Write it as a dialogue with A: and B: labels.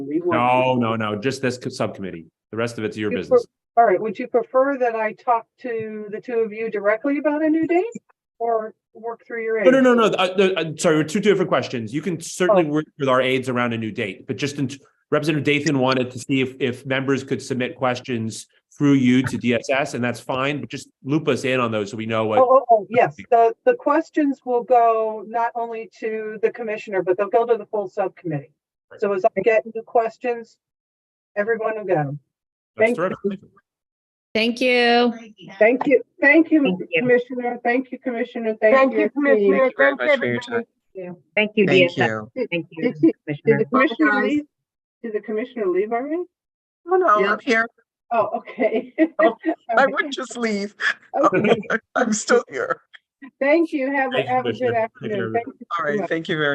A: We will-
B: No, no, no, just this co- subcommittee. The rest of it's your
A: You
B: business.
A: All right, would you prefer that I talk to the two of you directly about a new date? Or work through your?
B: No, no,
A: aides?
B: no, no. uh, the- uh, Sorry, two different questions. You can certainly
A: Oh.
B: work with our aides around a new date, but just in Representative Dathan wanted to see if, if members could submit questions through you to DSS, and that's fine, but just loop us in on those so we know what.
A: Oh, oh, oh, yes, the, the questions will go not only to the commissioner, but they'll go to the full subcommittee. So as I get new questions, everyone will get them.
B: that's
A: thank you.
B: terrific.
C: Thank you.
A: Thank you, thank you,
D: Thank you.
A: Commissioner, thank you, Commissioner,
E: Thank
A: thank
E: you,
A: you. team.
E: Commissioner. Thanks,
F: Thank you very much for your
E: everybody.
D: Thank you,
G: Thank
D: DSS.
G: you.
D: Thank you,
A: Did you- Did
D: Commissioner.
A: the commissioner
E: guys.
A: leave? Did the commissioner leave already?
E: No, no,
G: Yeah,
E: I'm
G: I'm here.
A: Oh, okay.
G: Oh, I
A: All
G: wouldn't just leave.
A: right, okay.
G: I'm still here.
A: Thank you, have, a
B: Thank you,
A: have a good
B: Commissioner. Take care,
A: afternoon.
B: everybody.
A: Thank you
G: All
A: so much.
G: right, thank you very